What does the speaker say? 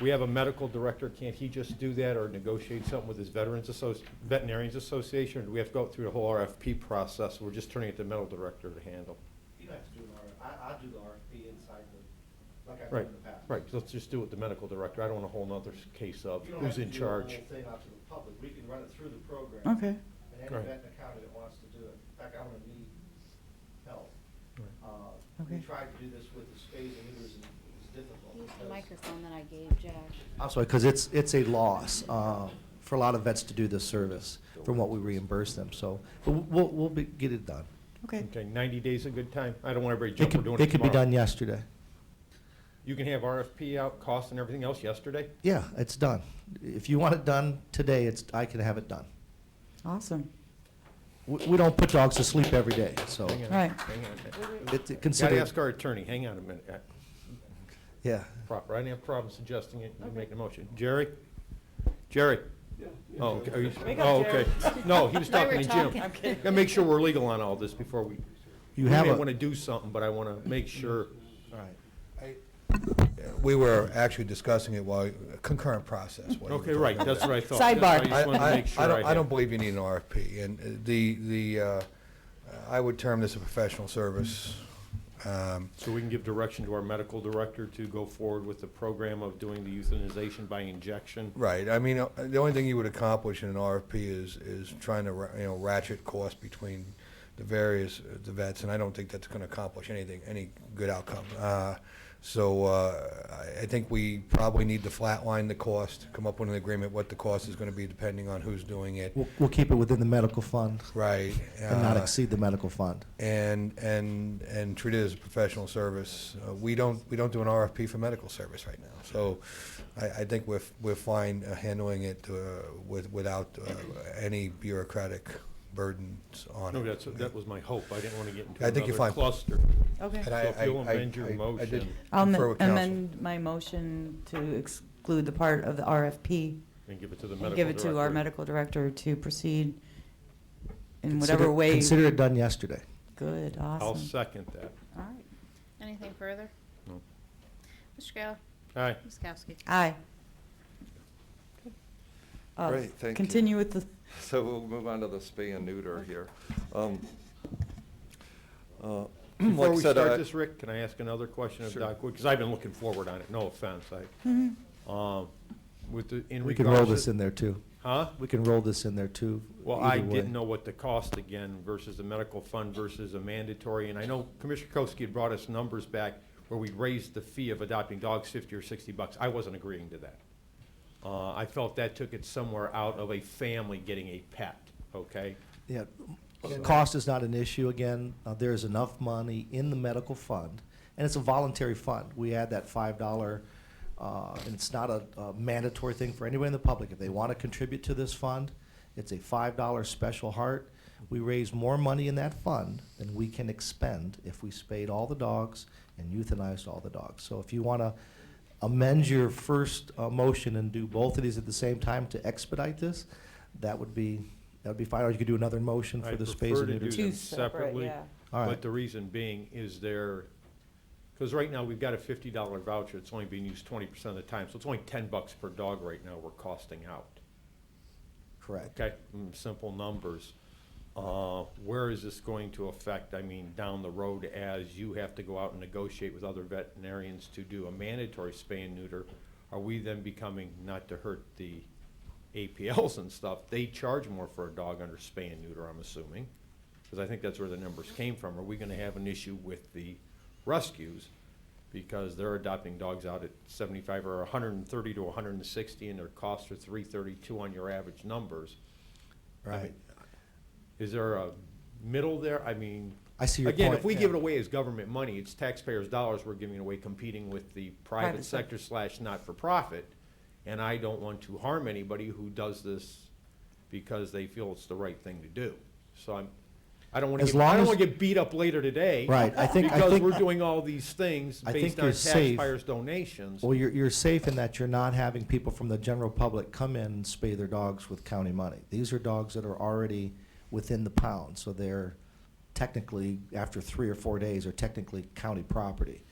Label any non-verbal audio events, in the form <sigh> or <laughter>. We have a medical director, can't he just do that or negotiate something with his veterans associ, veterinarians association? Or do we have to go through the whole RFP process? We're just turning it to medical director to handle. You don't have to do an RFP, I, I do the RFP inside the, like I've done Right, in the past. right, let's just do it with the medical director. I don't want a whole nother s- case of You don't have who's to in do the whole charge. thing out to the public, we can run it through the program. Okay. And any Right. vet in the county that wants to do it, in fact, I'm gonna need help. Right. Uh, Okay. We tried to do this with the spades and neuters, and it was difficult. Use the because- microphone that I gave Josh. I'm sorry, because it's, it's a loss uh, for a lot of vets to do this service from what we reimburse them, so, but we'll, we'll be- get it done. Okay. Okay, ninety days a good time? I don't want everybody It jumping, could, we're doing it it could be tomorrow. done yesterday. You can have RFP out, cost and everything else yesterday? Yeah, it's done. If you want it done today, it's, I can have it done. Awesome. We, we don't put dogs to sleep every day, so Hang on, Right. hang on a minute. it's Gotta considered, ask our attorney, hang on a minute. Uh, yeah. Proper, I didn't have a problem suggesting it, you make the motion. Jerry? Jerry? Oh, okay, are you- Wake up, oh, okay. No, he was They were talking to Jim. talking. I'm kidding. Gotta make sure we're legal on all this before we, we You have may a, want to do something, but I want to make sure. all right. We were actually discussing it while, concurrent process. while you were Okay, right, talking that's about what it. I thought. That's why I Sidebar. just wanted to I- I- make sure I don't- I had- don't believe you need an RFP, and uh, the, the, uh, I would term this a professional service. Um, So we can give direction to our medical director to go forward with the program of doing the euthanization by injection? Right, I mean, uh, the only thing you would accomplish in an RFP is, is trying to, ra- you know, ratchet costs between the various, uh, the vets, and I don't think that's gonna accomplish anything, any good outcome. Uh, So, uh, I, I think we probably need to flatline the cost, come up with an agreement what the cost is gonna be depending on who's doing it. We'll, we'll keep it within the medical fund Right. and not uh, exceed the medical fund. and and and treat it as a professional service. Uh, we don't we don't do an RFP for medical service right now. So I, I think we're f- we're fine uh, handling it uh, with without uh, any bureaucratic burdens on No, it. that's, that was my hope. I didn't want to get into I think you're another fine. cluster. Okay. And I- So if you'll I- I- amend your I- I motion. did I'll confer am- with counsel. amend my motion to exclude the part of the RFP And give it to the medical and give it to our director. medical director to proceed in Consider- whatever way. Consider it done yesterday. Good, I'll awesome. second that. All right. Anything further? No. Mr. Kayla? Aye. Ms. Kowski? Aye. Uh, Great, thank you. Continue with the, <laughs> So we'll move on to the spay and neuter here. Um, uh, <clears throat> like Before I we said, I- start this, Rick, can I ask another question of Sure. Doc Wood? Because I've been looking forward on it, no offense. Mm-hmm. I, um, with the, in regards. We can roll to- this in there too. Huh? We can roll this in there too. Well, I either way. didn't know what the cost again versus the medical fund versus a mandatory. And I know Commissioner Koski had brought us numbers back where we raised the fee of adopting dogs fifty or sixty bucks. I wasn't agreeing to that. Uh, I felt that took it somewhere out of a family getting a pet, okay? Yeah, cost is not an issue again. Uh, there is enough money in the medical fund, and it's a voluntary fund. We add that five dollar, uh, and it's not a, a mandatory thing for anybody in the public. If they want to contribute to this fund, it's a five dollar special heart. We raise more money in that fund than we can expend if we spayed all the dogs and euthanized all the dogs. So if you want to amend your first uh, motion and do both of these at the same time to expedite this, that would be, that would be fine, or you could do another motion I for the space prefer and to neuter. do two them separate, separately. yeah. All But right. the reason being is there, because right now, we've got a fifty dollar voucher, it's only being used twenty percent of the time, so it's only ten bucks per dog right now we're costing out. Correct. Okay, mm, simple numbers. Uh, Where is this going to affect, I mean, down the road as you have to go out and negotiate with other veterinarians to do a mandatory spay and neuter? Are we then becoming, not to hurt the APLs and stuff, they charge more for a dog under spay and neuter, I'm assuming? Because I think that's where the numbers came from. Are we going to have an issue with the rescues? Because they're adopting dogs out at seventy-five or hundred and thirty to hundred and sixty, and their costs are three thirty-two on your average numbers. Right. Is there a middle there? I mean, I see your point. again, if we give it away as government money, it's taxpayers' dollars we're giving away competing with the private Private sector sector. slash not-for-profit. And I don't want to harm anybody who does this because they feel it's the right thing to do. So I'm, I don't want As to, I long don't as- want to get beat up later today. Right, I think- I Because think- we're doing all these things I based think on you're safe. taxpayers' donations. Well, you're, you're safe in that you're not having people from the general public come in and spay their dogs with county money. These are dogs that are already within the pound, so they're technically, after three or four days, are technically county property.